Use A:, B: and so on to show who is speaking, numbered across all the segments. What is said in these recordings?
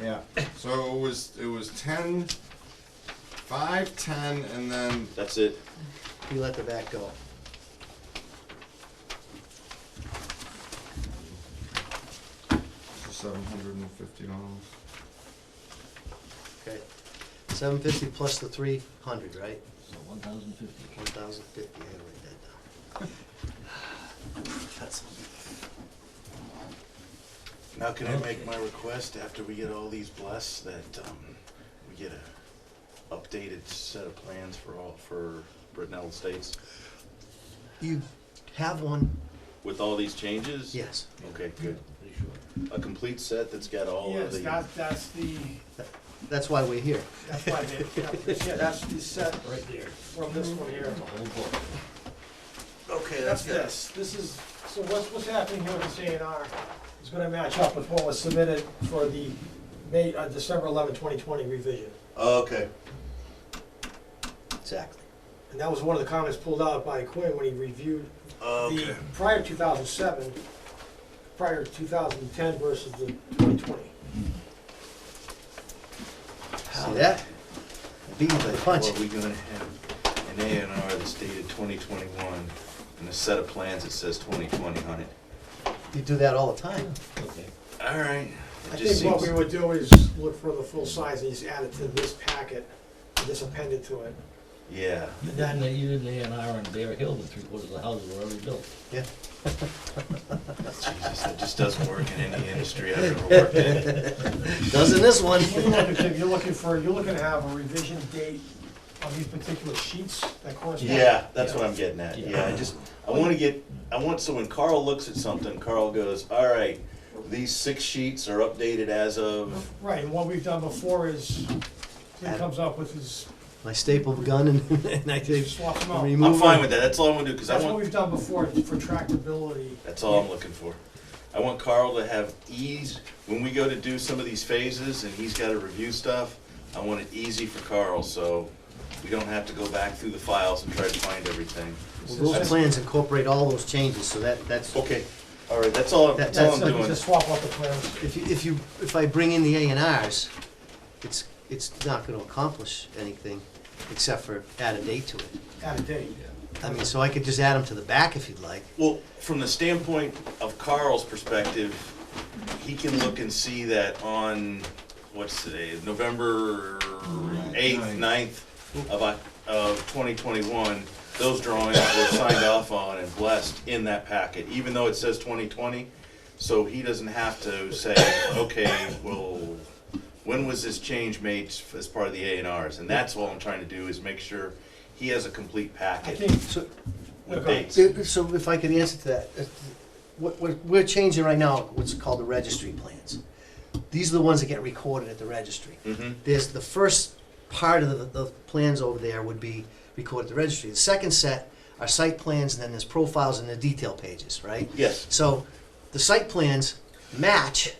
A: Yeah, so it was, it was ten, five, ten, and then,
B: That's it.
C: You let the back go.
A: seven hundred and fifty dollars.
C: Okay. Seven fifty plus the three hundred, right?
D: So one thousand fifty.
C: One thousand fifty, I gotta write that down. That's.
E: Now can I make my request after we get all these blessed that um, we get a updated set of plans for all, for Brittenell Estates
C: You have one?
B: With all these changes?
C: Yes.
B: Okay, good.
D: Pretty sure.
B: A complete set that's got all of
F: Yes,
B: the.
F: that, that's the,
C: That's why we're here.
F: that's why they, yeah, that's the set
D: Right there.
F: from this one here.
D: The whole book.
E: Okay,
F: That's this, this is, so what's, what's happening here with this A and R is gonna match up with what was submitted for the May, uh, December eleventh, twenty twenty revision.
E: Okay.
C: Exactly.
F: And that was one of the comments pulled out by Quinn when he reviewed the prior two thousand seven, prior two thousand ten versus the twenty twenty.
C: See that? Beat you by the punch.
E: Well, we gonna have an A and R that's dated twenty twenty-one and a set of plans that says twenty twenty on it.
C: You do that all the time.
D: Okay.
E: All right.
F: I
E: It just
F: think what
E: seems-
F: we would do is look for the full size and just add it to this packet, and just append it to it.
E: Yeah.
D: You did, the- you did the A and R on Bear Hill, the three quarters of the houses were already built.
C: Yeah.
E: Jesus, that just doesn't work in any industry I've ever worked in.
C: Doesn't this one?
F: What you're looking to- You're looking for, you're looking to have a revision date on these particular sheets that correspond?
E: Yeah, that's what I'm getting at.
D: Yeah.
E: Yeah, I just, I want to get, I want, so when Carl looks at something, Carl goes, all right, these six sheets are updated as of,
F: Right, and what we've done before is, he comes up with his,
C: I stapled gun and, and I
F: he
C: just
F: swaps them out.
C: remove.
E: I'm fine with that, that's all I'm gonna do, because I
F: That's what we've
E: want,
F: done before for tractability.
E: that's all I'm looking for. I want Carl to have ease, when we go to do some of these phases and he's got to review stuff, I want it easy for Carl, so we don't have to go back through the files and try to find everything.
C: Well, Those plans incorporate all those changes, so that, that's,
E: Okay, all right, that's all,
C: That-
E: that's all
C: that's-
E: I'm
F: Just
E: doing.
F: swap out the plans.
C: if you, if you, if I bring in the A and Rs, it's, it's not gonna accomplish anything except for add a date to it.
F: out of date.
C: I mean, so I could just add them to the back if you'd like.
E: Well, from the standpoint of Carl's perspective, he can look and see that on, what's today, November eighth, ninth of, Oc- of twenty twenty-one, those drawings were signed off on and blessed in that packet, even though it says twenty twenty. So he doesn't have to say, okay, well, when was this change made as part of the A and Rs? And that's all I'm trying to do is make sure he has a complete
F: I
E: packet
F: think,
C: So,
E: with
F: Okay.
E: dates.
C: so- so if I could answer to that, uh, what, what, we're changing right now what's called the registry plans. These are the ones that get recorded at the registry.
E: Mhm.
C: There's the first part of the, the plans over there would be recorded at the registry. The second set are site plans, and then there's profiles and the detail pages, right?
E: Yes.
C: So the site plans match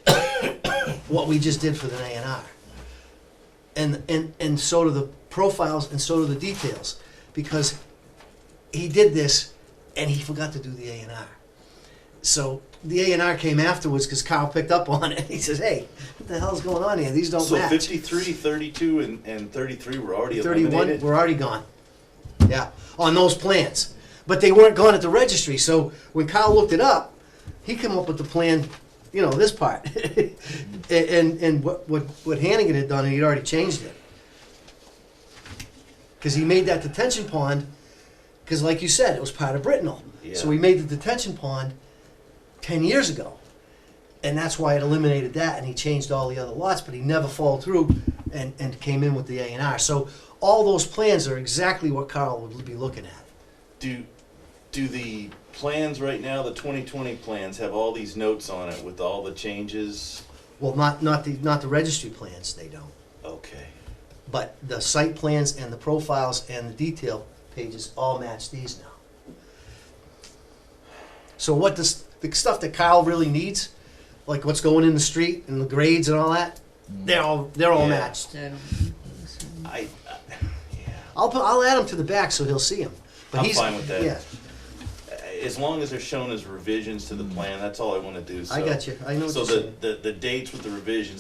C: what we just did for the A and R. And, and, and so do the profiles and so do the details, because he did this and he forgot to do the A and R. So the A and R came afterwards because Kyle picked up on it. He says, hey, what the hell's going on here? These don't
E: So
C: match.
E: 53, 32, and, and 33 were already
C: 31,
E: eliminated?
C: we're already gone. Yeah, on those plans. But they weren't gone at the registry, so when Kyle looked it up, he came up with the plan, you know, this part. And- And, and what, what what Hannigan had done, he'd already changed it. Because he made that detention pond, because like you said, it was part of Brittenell. So
E: Yeah.
C: he made the detention pond ten years ago. And that's why it eliminated that, and he changed all the other lots, but he never followed through and, and came in with the A and R. So all those plans are exactly what Carl would be looking at.
E: Do, do the plans right now, the 2020 plans, have all these notes on it with all the changes?
C: Well, not, not the, not the registry plans, they don't.
E: Okay.
C: But the site plans and the profiles and the detail pages all match these now. So what does, the stuff that Kyle really needs, like what's going in the street and the grades and all that, they're all, they're all
E: Yeah.
C: matched.
G: So,
E: I, I- yeah,
C: I'll put, I'll add him to the back so he'll see him. But
E: I'm
C: he's,
E: fine with that.
C: Yeah,
E: as long as they're shown as revisions to the plan, that's all I want to do, so.
C: Hmm. I got you. I know what
E: So
C: you're
E: the,
C: saying.
E: the, the dates with the revisions